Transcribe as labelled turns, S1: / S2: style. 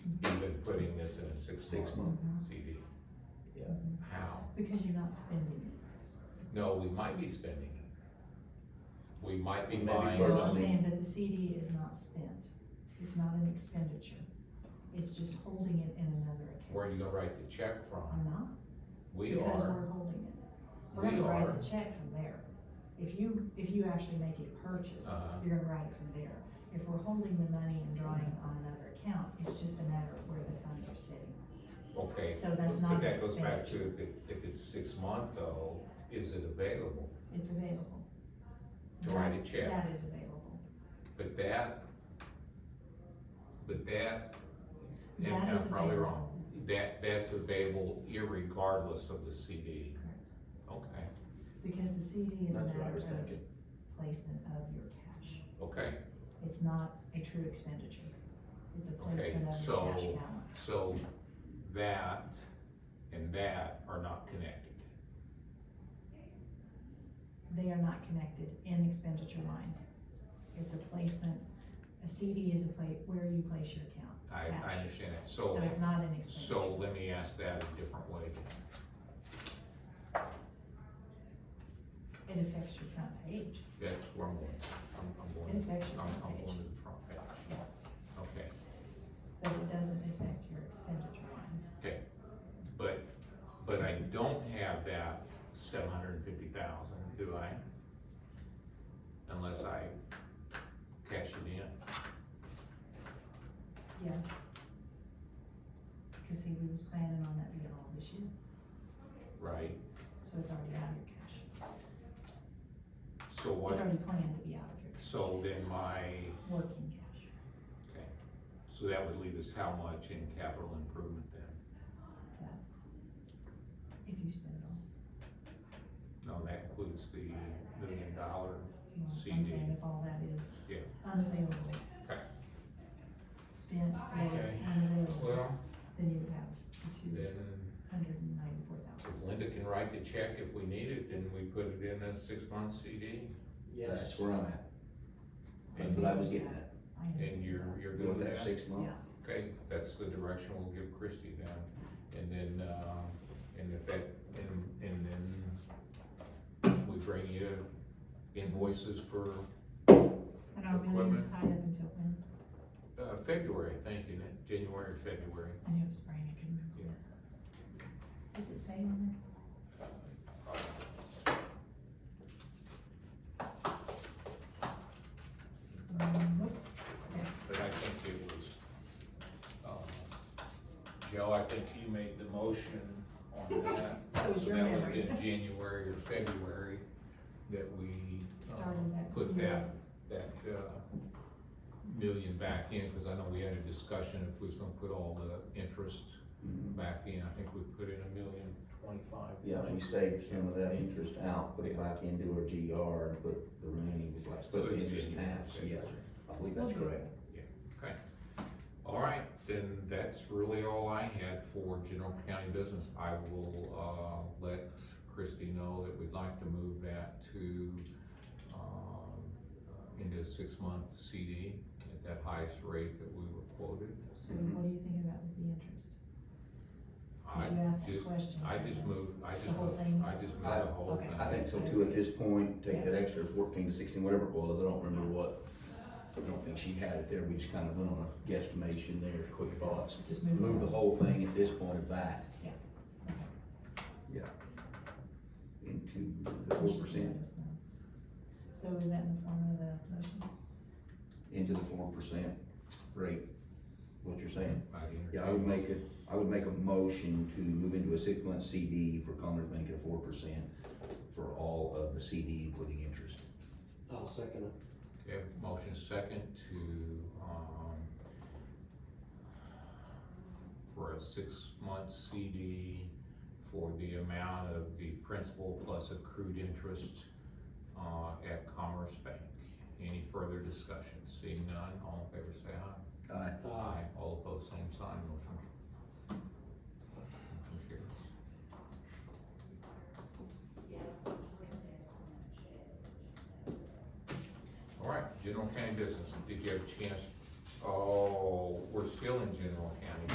S1: six-month CD.
S2: Yeah.
S1: How?
S3: Because you're not spending
S1: No, we might be spending it. We might be
S2: Maybe
S1: buying
S3: it.
S2: Or
S3: So I'm
S2: something.
S1: something.
S3: saying, but the CD is not spent. It's not an expenditure. It's just holding it in another
S1: Where are
S3: account.
S1: you gonna write the check
S3: I'm
S1: from?
S3: not,
S1: We
S3: because
S1: are,
S3: we're holding it. We're
S1: we
S3: gonna
S1: are,
S3: write the check from there. If you, if you actually make a purchase,
S1: Uh-huh.
S3: you're gonna write it from there. If we're holding the money and drawing on another account, it's just a matter of where the funds are sitting.
S1: okay.
S3: So that's
S1: but-
S3: not
S1: But that goes back to
S3: expensive.
S1: if it, if it's six-month though, is it available
S3: It's available.
S1: to write a check?
S3: That is available.
S1: But that, but that, and
S3: That
S1: I'm
S3: is
S1: probably
S3: available.
S1: wrong, that, that's available irregardless of the CD. Okay,
S3: Because the CD is a
S2: That's what I
S3: matter
S2: was
S3: of
S2: thinking.
S3: placement of your cash.
S1: okay,
S3: It's not a true expenditure. It's a
S1: Okay,
S3: placement of your cash
S1: so-
S3: balance.
S1: so that and that are not connected.
S3: They are not connected in expenditure lines. It's a placement, a CD is a place, where you place your account.
S1: I, I
S3: Cash.
S1: understand that, so,
S3: So it's not an
S1: so
S3: expenditure.
S1: let me ask that a different way.
S3: It affects your front page.
S1: That's where I'm going, I'm, I'm
S3: It
S1: going,
S3: affects your
S1: I'm, I'm
S3: front
S1: going to
S3: page,
S1: the front page. Okay,
S3: but it doesn't affect your expenditure line.
S1: but, but I don't have that seven hundred and fifty thousand, do I? Unless I cash it in.
S3: Because see, we was planning on that being all this year,
S1: Right,
S3: so it's already out of your cash.
S1: so
S3: It's
S1: what,
S3: already planned to be out of your
S1: so then my,
S3: working cash.
S1: so that would leave us how much in capital improvement then?
S3: If you spend it all.
S1: No, that includes the million dollar,
S3: You know, I'm
S1: CD.
S3: saying if all that is
S1: Yeah.
S3: unavailable.
S1: Okay.
S3: Spent or
S1: Okay.
S3: unavailable,
S1: well,
S3: then you would have the two
S1: then
S3: hundred and ninety-four thousand.
S1: if Linda can write the check if we need it, then we put it in a six-month CD,
S2: That's where I'm at, that's what I was getting at,
S1: and you're, you're good
S2: with
S1: with
S2: that
S1: that?
S2: six month.
S1: Okay, that's the direction we'll give Christie then, and then, uh, and if that, and, and then we bring you invoices for,
S3: And our millions tied up until when?
S1: uh, February, I think, isn't it, January, or February?
S3: I knew it was spring, I couldn't remember. when. Does it say on there? Um, nope.
S1: But I think it was, um, Joe, I think you made the motion on that.
S3: That was
S1: So
S3: your
S1: that would've
S3: memory.
S1: been January or February that we,
S3: Started
S1: um,
S3: that
S1: put that,
S3: year.
S1: that, uh, million back in, cause I know we had a discussion if we was gonna put all the interest back in. I think we put in a million twenty-five.
S2: Mm-hmm. Yeah, we saved some of that interest out, put it back into our GR and put the remaining, was like split the interest in half, so yes, I believe that's correct.
S1: All right, then that's really all I had for general county business. I will, uh, let Christie know that we'd like to move that to, um, uh, into a six-month CD at that highest rate that we were quoted.
S3: So what do you think about the interest?
S1: I
S3: Did you ask that
S1: just,
S3: question?
S1: I just moved, I just
S3: The whole
S1: moved,
S3: thing?
S1: I just moved the whole
S3: Okay.
S1: thing.
S2: I think so too, at this point, take that extra fourteen to sixteen, whatever it was, I don't remember what, I don't think she had it there, we just kind of went on a guesstimation there, quick thoughts.
S3: Just move it
S2: Move the
S3: on.
S2: whole thing at this point back.
S3: Yeah.
S2: Yeah. Into the four percent,
S3: So is that in the form of the motion?
S2: into the four percent rate, what you're saying?
S1: I'd entertain-
S2: Yeah, I would make it, I would make a motion to move into a six-month CD for Commerce Bank at four percent for all of the CD, including interest.
S4: I'll second it.
S1: Okay, motion second to, um, for a six-month CD for the amount of the principal plus accrued interest, uh, at Commerce Bank. Any further discussion? Seeing none, all in favor say aye.
S2: Aye.
S1: Aye. All opposed, same sign, motion. Motion carries. All right, general county business, did you have a chance, oh, we're still in general county